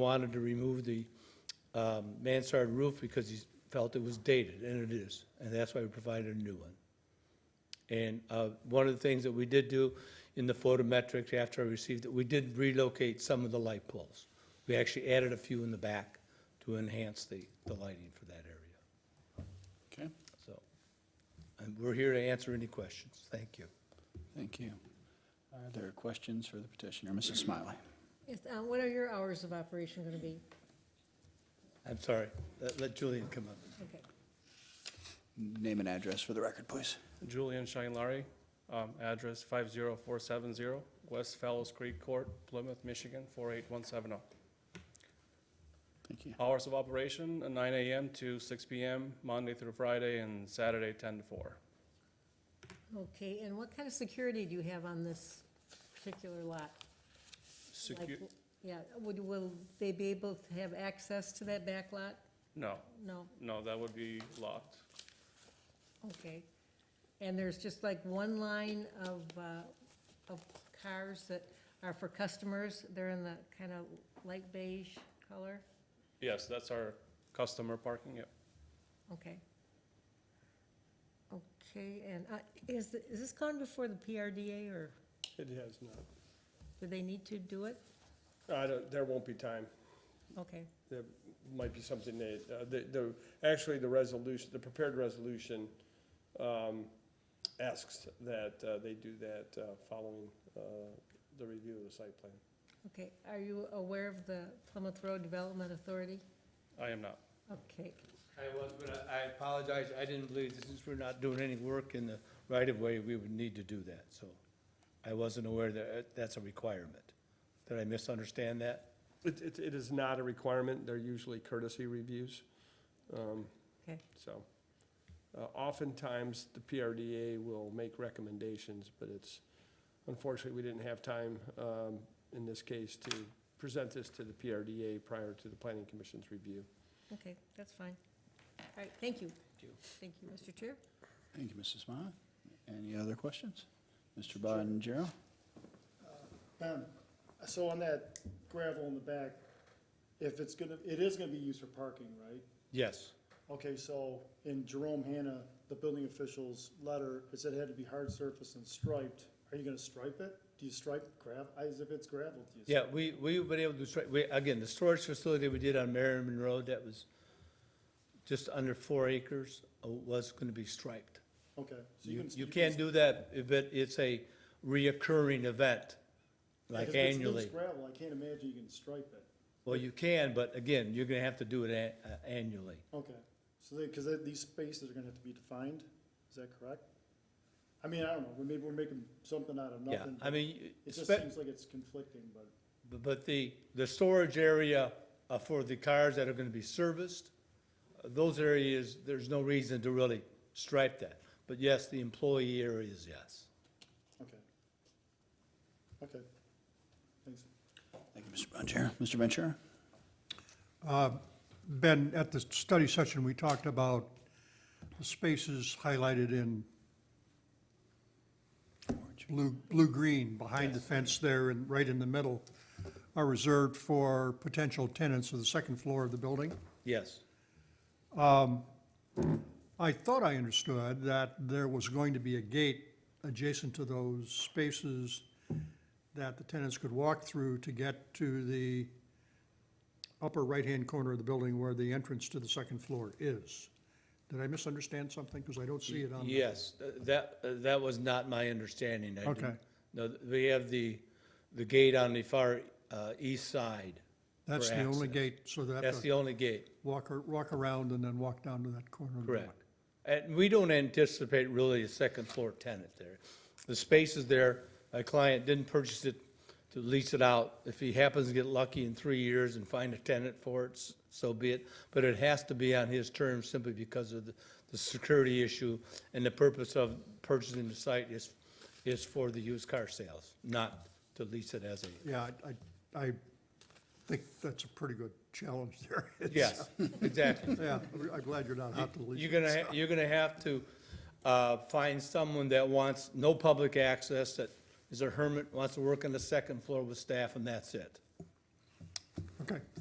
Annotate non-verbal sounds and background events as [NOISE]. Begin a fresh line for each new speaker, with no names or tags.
wanted to remove the um, mansard roof because he felt it was dated, and it is, and that's why we provided a new one. And uh, one of the things that we did do in the photometrics after I received it, we did relocate some of the light poles. We actually added a few in the back to enhance the, the lighting for that area.
Okay,
So, and we're here to answer any questions. Thank you.
thank you. Are there questions for the petitioner? Mrs. Smiley?
Yes, uh, What are your hours of operation going to be?
I'm sorry. Let- Let Julian come up.
Okay.
Name and address for the record, please.
Julian Shanglarry, um, address 50470, West Fellows Creek Court, Plymouth, Michigan, 48170.
Thank you.
oh. Hours of operation, uh, 9 AM to 6 PM, Monday through Friday, and Saturday, 10 to 4.
Okay, and what kind of security do you have on this particular lot? Like,
Secu-
Yeah, would, will they be able to have access to that back lot?
No,
No,
no, that would be locked.
okay. And there's just like one line of, uh, of cars that are for customers, they're in the kind of light beige color?
Yes, that's our customer parking, yep.
Okay. Okay, and uh, is, th- is this gone before the PRDA, or
It has not.
do they need to do it?
I don't, there won't be time.
Okay,
There might be something that, uh, the, the, actually, the resolution, the prepared resolution, um, asks that, uh, they do that, uh, following, uh, the review of the site plan.
okay. Are you aware of the Plymouth Road Development Authority?
I am not.
Okay,
I was, but I apologize. I didn't believe, since we're not doing any work in the right-of-way, we would need to do that, so I wasn't aware that uh, that's a requirement. Did I misunderstand that?
It, it, it is not a requirement. They're usually courtesy reviews. Um,
Okay.
So, uh, oftentimes, the PRDA will make recommendations, but it's, unfortunately, we didn't have time, um, in this case, to present this to the PRDA prior to the planning commission's review.
okay, that's fine. All right, thank you. Thank you, Mr. Chair.
Thank you, Mrs. Smiley. Any other questions? Mr. Bonjero?
Ben, Um, so on that gravel in the back, if it's gonna, it is gonna be used for parking, right?
Yes.
Okay, so in Jerome Hanna, the building official's letter, it said it had to be hard surface and striped. Are you gonna stripe it? Do you stripe gravel, as if it's gravel? Do you
Yeah, we, we've been able to, stri- we, again, the storage facility we did on Merriman Road, that was just under four acres, uh, was gonna be striped.
Okay. so
You,
can-
you
can-
can't do that, but it's a reoccurring event,
if
like
it's loose
annually.
gravel, I can't imagine you can stripe it.
Well, you can, but again, you're gonna have to do it a- uh, annually.
Okay, so they, cause they- these spaces are gonna have to be defined, is that correct? I mean, I don't know, maybe we're making something out of
Yeah,
nothing.
I mean,
It just
spe-
seems like it's conflicting, but.
Bu- But the, the storage area uh, for the cars that are gonna be serviced, uh, those areas, there's no reason to really stripe that. But yes, the employee areas, yes.
Okay. Okay. Thanks.
Thank you, Mr. Bonjero. Mr. Ventura?
Uh, Ben, at the study session, we talked about the spaces highlighted in blue, blue-green behind the fence there and right in the middle are reserved for potential tenants of the second floor of the building.
Yes,
I thought I understood that there was going to be a gate adjacent to those spaces that the tenants could walk through to get to the upper right-hand corner of the building where the entrance to the second floor is. Did I misunderstand something? Because I don't see it on. the-
yes, uh, that, uh, that was not my understanding. I didn't-
Okay.
No, th- we have the, the gate on the far uh, east side.
That's
for
the only
access.
gate, so they
That's
have
the
to
only gate.
walk, ar- walk around and then walk down to that corner. of the building.
Correct. And we don't anticipate really a second floor tenant there. The space is there. My client didn't purchase it to lease it out. If he happens to get lucky in three years and find a tenant for it, s- so be it. But it has to be on his terms simply because of the, the security issue. And the purpose of purchasing the site is, is for the used car sales, not to lease it as a,
Yeah, I- I, I think that's a pretty good challenge there. [LAUGHS] It's-
yes, exactly.
Yeah, I'm glad you're not out to leave.
You're gonna, ha- you're gonna have to uh, find someone that wants no public access, that is a hermit, wants to work on the second floor with staff, and that's it.
Okay,